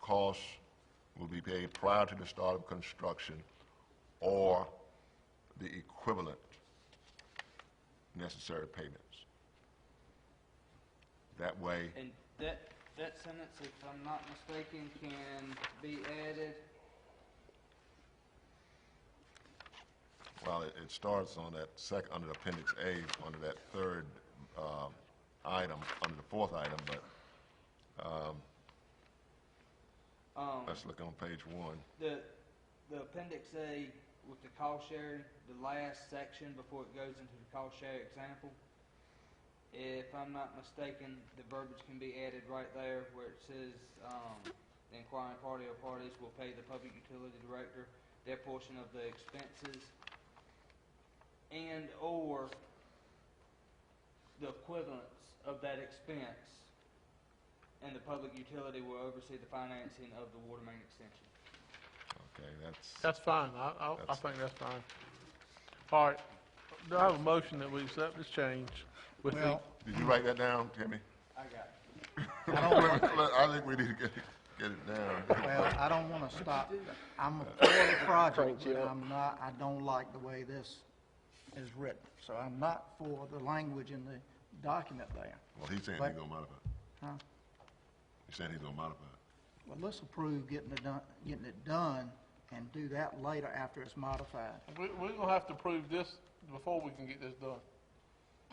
costs will be paid prior to the start of construction or the equivalent necessary payments. That way, And that, that sentence, if I'm not mistaken, can be added, well, it it starts on that second, under Appendix A, under that third um, item, under the fourth item, but um, let's look on page one. the, the appendix A with the cost sharing, the last section before it goes into the cost share example. If I'm not mistaken, the verbiage can be added right there where it says, um, the inquiring party or parties will pay the public utility director their portion of the expenses and/or the equivalence of that expense, and the public utility will oversee the financing of the water main extension. Okay, that's, That's fine, I, I, I That's- think that's fine. All right, do I have a motion that we accept this change with the, Well, did you write that down, Timmy? I got it. Look, look, I think we need to get, it- get it down. well, I don't want to stop. I'm for the project, but I'm not, I don't like the way this is written. So I'm not for the language in the document there. Well, he's saying he's gonna modify it. Huh? He's saying he's gonna modify it. Well, let's approve getting it done, getting it done and do that later after it's modified. we, we're gonna have to prove this before we can get this done.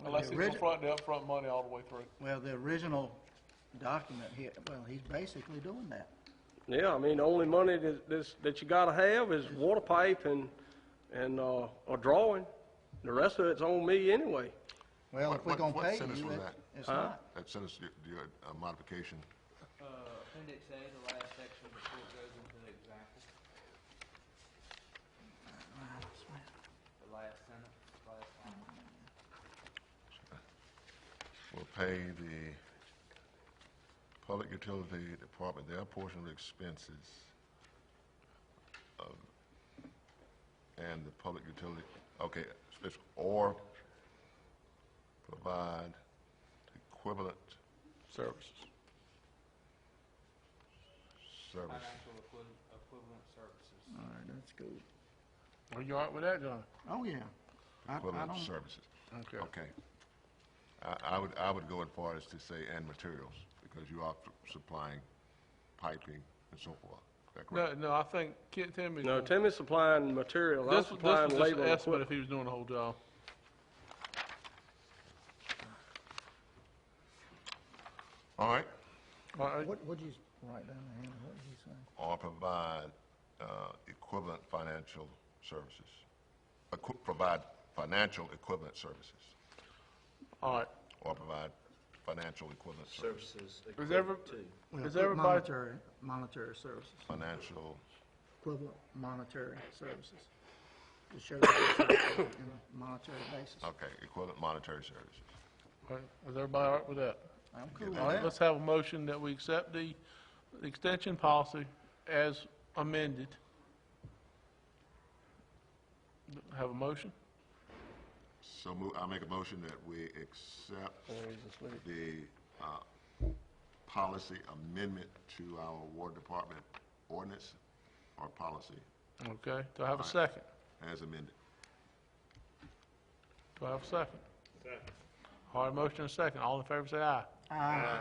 Unless the it's origi- front, the upfront money all the way through. Well, the original document here, well, he's basically doing that. Yeah, I mean, the only money that, that's- that you gotta have is water pipe and, and, uh, a drawing. The rest of it's on me anyway. Well, What- if we're what- gonna what pay sentence you, was it- that? it's not. That sentence, the- the, uh, modification, Uh, appendix A, the last section before it goes into the example, the last sentence, last line. will pay the public utility department their portion of the expenses of- and the public utility, okay, expense- or provide equivalent Services. service. financial equivalent, equivalent services. All right, that's good. Are you all right with that, John? Oh, yeah. I, I equivalent don't, services. Okay. Okay. I, I would, I would go as far as to say, and materials, because you are supplying piping and so forth. Is that correct? No, no, I think Kent Timmons. No, Timmy's supplying material, I'm This, this was supplying just labor. an and estimate equipment. if he was doing the whole job. All right. All right, what, what'd you write down there? Hannah? What did you say? Or provide, uh, equivalent financial services. Equi- provide financial equivalent services, all right. or provide financial equivalent services. services Is every, equivalent to. Well, is put everybody, Monetary, monetary services, Financial, equivalent monetary services. To show that it's on a monetary basis. okay, equivalent monetary services. all right, is everybody all right with that? I'm cool with All right, that. let's have a motion that we accept the extension policy as amended. Have a motion? So move, I make a motion that we accept the, uh, policy amendment to our War Department ordinance or policy Okay, do I have a second? as amended. Do I have a second? Second. All right, motion and a second, all in favor say aye. Aye.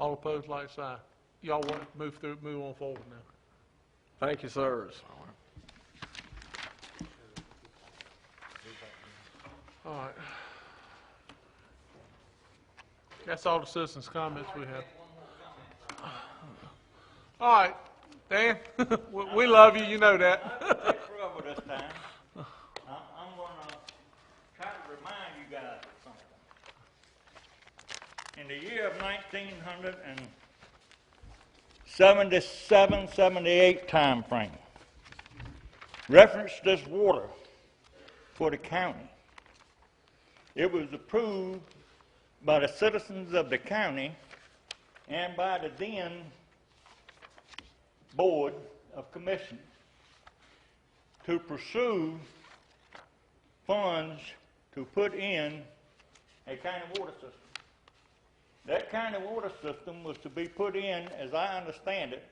All opposed, like sign. Y'all want to move through, move on forward now. Thank you, sirs. All right. All right. That's all the citizens' comments we have. All right, Dan, we- we love you, you know that. take trouble this time. I'm, I'm gonna try to remind you guys of something. In the year of nineteen hundred and seventy-seven, seventy-eight timeframe, reference this water for the county. It was approved by the citizens of the county and by the then Board of Commissioners to pursue funds to put in a county water system. That county water system was to be put in, as I understand it,